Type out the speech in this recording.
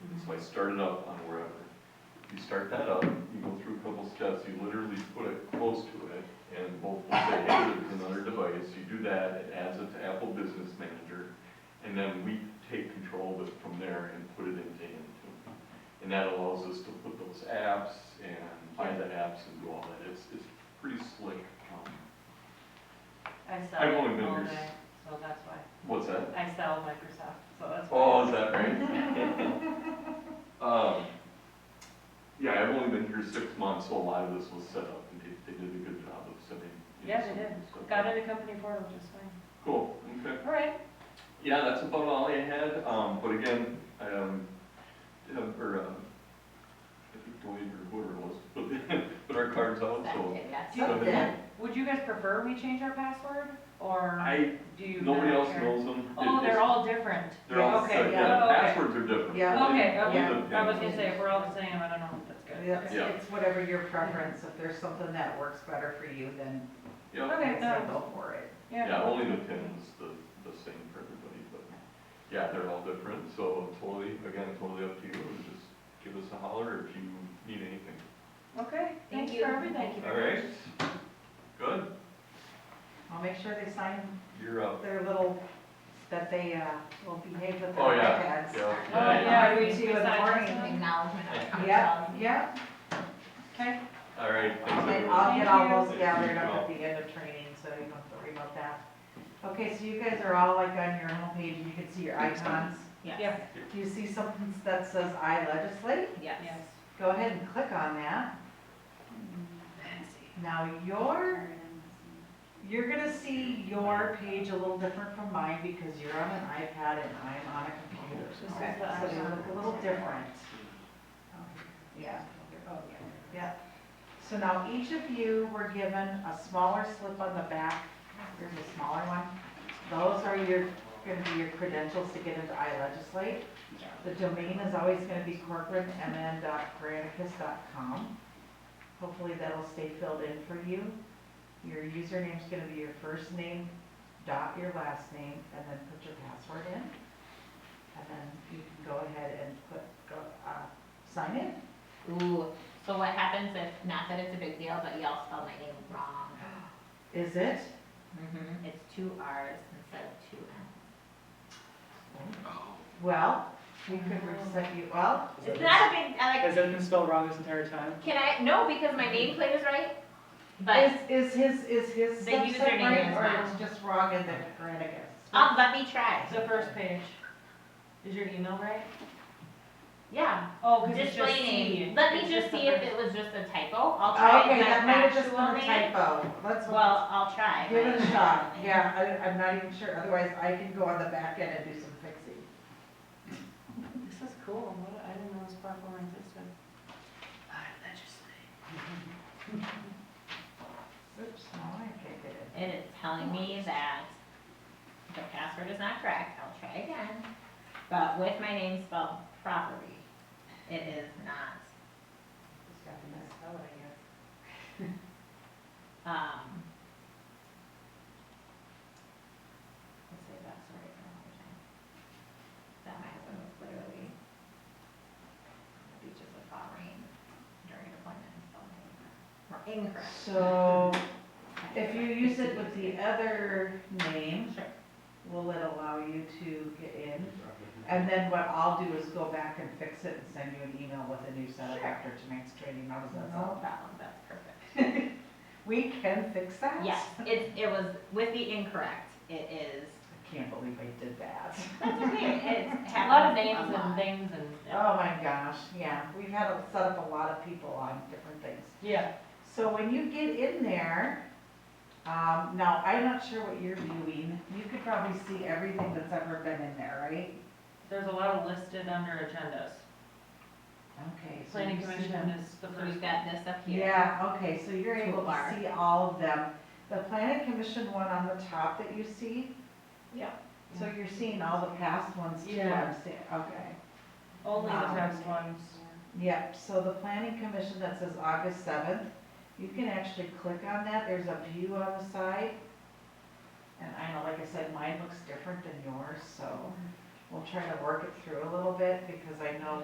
So I started up on wherever. You start that up, you go through a couple steps, you literally put it close to it, and both will say, hey, there's another device, you do that, it adds it to Apple Business Manager, and then we take control of it from there and put it into Intune. And that allows us to put those apps and find the apps and do all that, it's, it's pretty slick. um, I sell I've only it been all here day, s- so that's why. What's that? I sell Microsoft, so that's why. Oh, is that right? Um, yeah, I've only been here six months, so a lot of this was set up, and they, they did a good job of setting. you know, Yeah, some they of did. the stuff Got up. it at company portal just fine. Cool, okay. All right, Yeah, that's about all I had, um, but again, I, um, did have- or, um, I think Dwayne or whoever it was, put, put our cards out, so. Something. would you guys prefer we change our password, or I, do you? not nobody else care? knows them. Oh, It- they're it's- all different. They're all, Okay, set, yeah, yeah, the okay. passwords are different. Yeah. Okay, okay. Leave it- I was gonna say, if we're all the same, I don't know, that's good. It's, Yeah. it's whatever your preference, if there's something that works better for you, then Yeah. Okay, then no, go for it. Yeah, only the pin's the, the same for everybody, but, yeah, they're all different, so totally, again, totally up to you, just give us a holler if you need anything. Okay, Thank thanks you. for everything. Oh, Thank you All right, good, I'll make sure they sign you're up. their little, that they, uh, will behave with their Oh, yeah, iPads. yeah. Oh, yeah, we, we Do the signed this morning. one. Acknowledgement. Yeah, yeah, Okay, All right, thanks and everyone. I'll get Thank all those you. gathered up at the end of training, so you don't have to worry about that. Okay, so you guys are all like on your homepage, and you can see your icons. yeah, Do you see something that says I legislate? yes. Go ahead and click on that. Now your, you're gonna see your page a little different from mine because you're on an iPad and I'm on a computer. This is Okay, the So they look a little different. Yeah, Oh, yeah. yeah. So now each of you were given a smaller slip on the back. Here's a smaller one. Those are your, gonna be your credentials to get into iLegislate. The domain is always gonna be corcoranmn.granicus.com. Hopefully that'll stay filled in for you. Your username's gonna be your first name, dot your last name, and then put your password in. And then you can go ahead and put, go, uh, sign in. Ooh, so what happens if, not that it's a big deal, but y'all spelled my name wrong? Is it? It's two Rs instead of two Ms. Well, we could reset you, well, It's not a big, I Has like, that been spelled wrong this entire time? can I, no, because my nameplate is right, is, but, is his, is his The stuff set username right, is or not. it's just wrong in the Granicus? um, let me try. The first page. Is your email right? Yeah, Oh, because it's just display C. name, let It's me just the see if first- it was just a typo, I'll try Okay, my that might have just been actual a name. typo. Let's. Well, I'll try. Give my it a shot, actual name. yeah, I, I'm not even sure, otherwise I can go on the back end and do some fixing. This is cool, what, I didn't know this platform existed. I legislate. Oops, no, I can't get it. It is telling me that the password is not correct, I'll try again, but with my name spelled properly, it is not, Just got the mess out, I guess. um. Let's say that story for another time. That my husband was literally on the beaches of Bahrain during an appointment and spelled my name wrong- incorrect. So, if you use it with the other name, Sure. will it allow you to get in? And then what I'll do is go back and fix it and send you an email with a new setup Sure. after tonight's training, how does that No sound? problem, that's perfect. We can fix that? Yes, it, it was with the incorrect, it is, I can't believe I did that. that's okay, it's A lot of happens names and a lot. things and, Oh my gosh, yeah, we've had to set up a lot of people on different things. yeah. So when you get in there, um, now, I'm not sure what you're viewing, you could probably see everything that's ever been in there, right? There's a lot of listed under agendas. Okay. so Planning you see commission them. is the So first. we've got this up here. Yeah, okay, so you're able to Toolbar. see all of them. The planning commission one on the top that you see? Yeah. So you're seeing all the past ones too, Yeah. I'm seeing, okay. Only the Um, text ones. Yep, so the planning commission that says August seventh, you can actually click on that, there's a view on the side. And I know, like I said, mine looks different than yours, so we'll try to work it through a little bit, because I know